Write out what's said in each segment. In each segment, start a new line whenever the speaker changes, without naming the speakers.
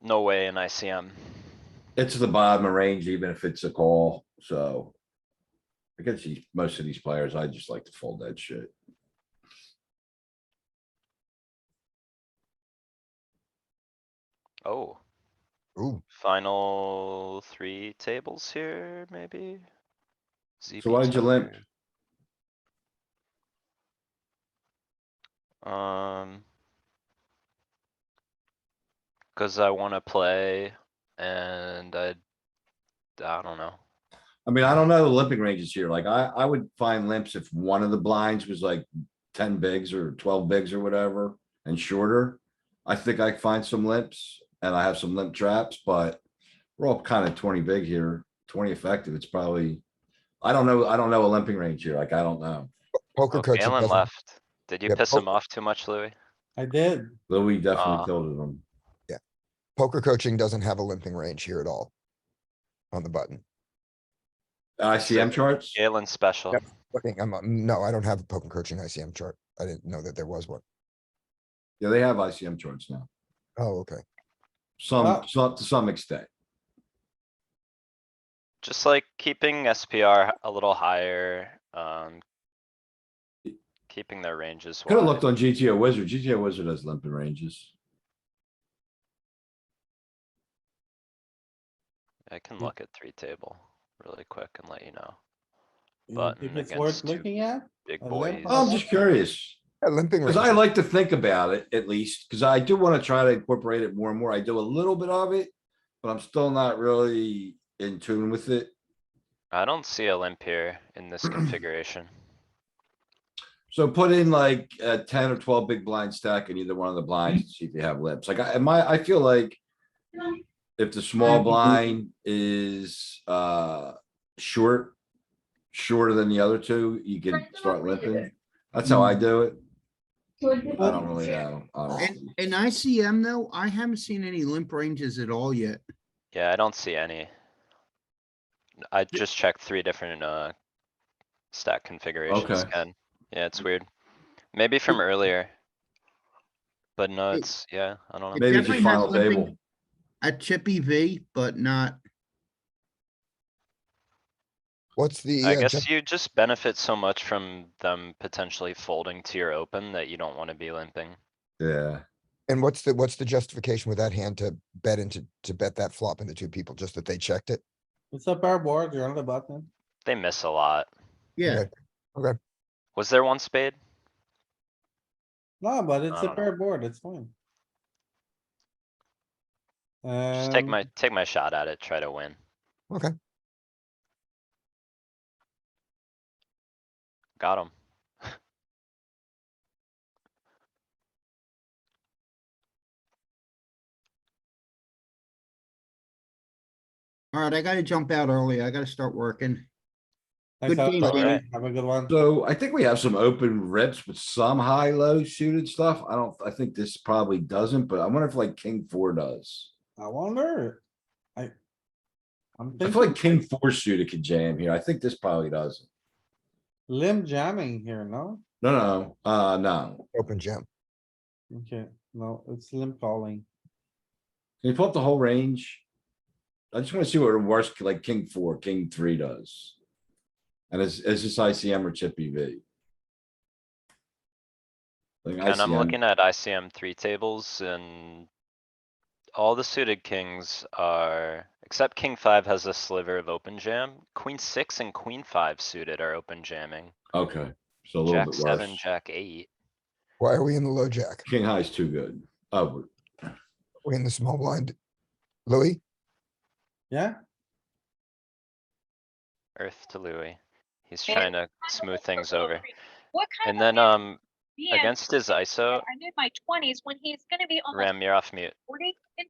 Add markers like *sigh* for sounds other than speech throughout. No way in ICM.
It's the bottom of range, even if it's a call, so. Against these, most of these players, I just like to fold that shit.
Oh,
Ooh,
final three tables here, maybe?
So why did you
ZP10.
limp?
Um. Cause I wanna play and I, I don't know.
I mean, I don't know the limping ranges here. Like, I, I would find limps if one of the blinds was like ten bigs or twelve bigs or whatever and shorter. I think I find some limps and I have some limp traps, but we're all kind of twenty big here, twenty effective. It's probably. I don't know. I don't know a limping range here. Like, I don't know.
poker
Oh,
coaching
Galen
doesn't,
left. Did you
Yeah,
Oh.
piss him
poker-
off too much, Louis?
I did.
Louis definitely
Ah.
tilted him.
poker coaching doesn't have a limping range here at all. On the button.
ICM charts?
Galen's special.
Yep. Looking, I'm, uh, no, I don't have a poker coaching ICM chart. I didn't know that there was one.
Yeah, they have ICM charts now.
Oh, okay.
Some,
Ah.
some, to some extent.
Just like keeping SPR a little higher, um. Keeping their ranges
Could have
wide.
looked on GTO Wizard. GTO Wizard has limping ranges.
I can look at three table really quick and let you know.
You
Button
think it's
against
worth
two
looking at?
Big
A
boys.
limp
I'm
on
Oh, just curious.
Yeah, limping range.
Cause I like to think about it at least, cause I do wanna try to incorporate it more and more. I do a little bit of it. But I'm still not really in tune with it.
I don't see a limp here in
*clears throat*
this configuration.
So put in like a ten or twelve big blind stack in either one of the blinds, to see if you have lips. Like I, my, I feel like. If the
Mm-hmm.
small blind is, uh, short, shorter than the other two, you can start limping. That's how
Mm.
I do it. I don't really uh, know. honestly.
In ICM though, I haven't seen any limp ranges at all yet.
Yeah, I don't see any. I just checked three different, uh, stack configurations,
Okay. Mm.
Ken. Yeah, it's weird. Maybe from earlier. But no,
It-
it's, yeah, I don't know.
Maybe
definitely
just
has
final
limping.
table.
At Chippy V, but not,
What's the?
I
uh,
guess
gen-
you just benefit so much from them potentially folding to your open that you don't wanna be limping.
Yeah,
And what's the, what's the justification with that hand to bet into, to bet that flop into two people, just that they checked it?
It's a pair board, you're on the button.
They miss a lot.
yeah,
Was there one spade?
No, but it's
I
a
don't
pair board, it's fine.
Just take my,
Um,
take my shot at it, try to win.
Okay.
Got him.
alright, I gotta jump out early. I gotta start working.
thanks,
good
Alex.
game,
Have a-
buddy.
Have a good one.
so I think we have some open rips with some high, low suited stuff. I don't, I think this probably doesn't, but I wonder if like king four does.
I wonder. I. I'm
I feel like king
thinking
four suited could jam here. I think this probably doesn't.
limb jamming here, no?
No, no, uh, no.
Open jam.
Okay, no, it's limb calling.
Can you pull up the whole range? I just wanna see what a worst, like king four, king three does. And is, is this ICM or chip E EV? Like
And I'm
ICM
looking at ICM three tables and. All the suited kings are, except king five has a sliver of open jam, queen six and queen five suited are open jamming.
Okay, so a little
Jack
bit
seven,
worse.
jack eight,
Why are we in the low jack?
King high's too good. Oh,
We in the small blind? Louis?
Yeah,
earth to Louis. He's
And-
trying to smooth things over.
What kind
And
of
then,
man
um,
being
against his ISO,
I'm in my twenties when he's gonna be almost
Ram, you're off mute.
forty. and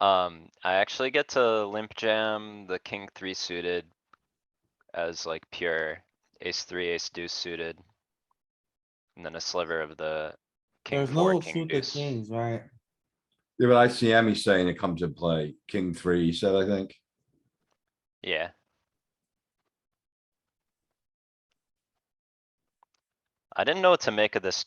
Um, I actually get to limp jam the king three suited. As like pure ace three, ace deuce suited. And then a sliver of the king
there's
four,
no
king
suited
deuce.
kings, right?
yeah, but ICM, he's saying it comes in play, king three, he said, I think.
Yeah. I didn't know what to make of this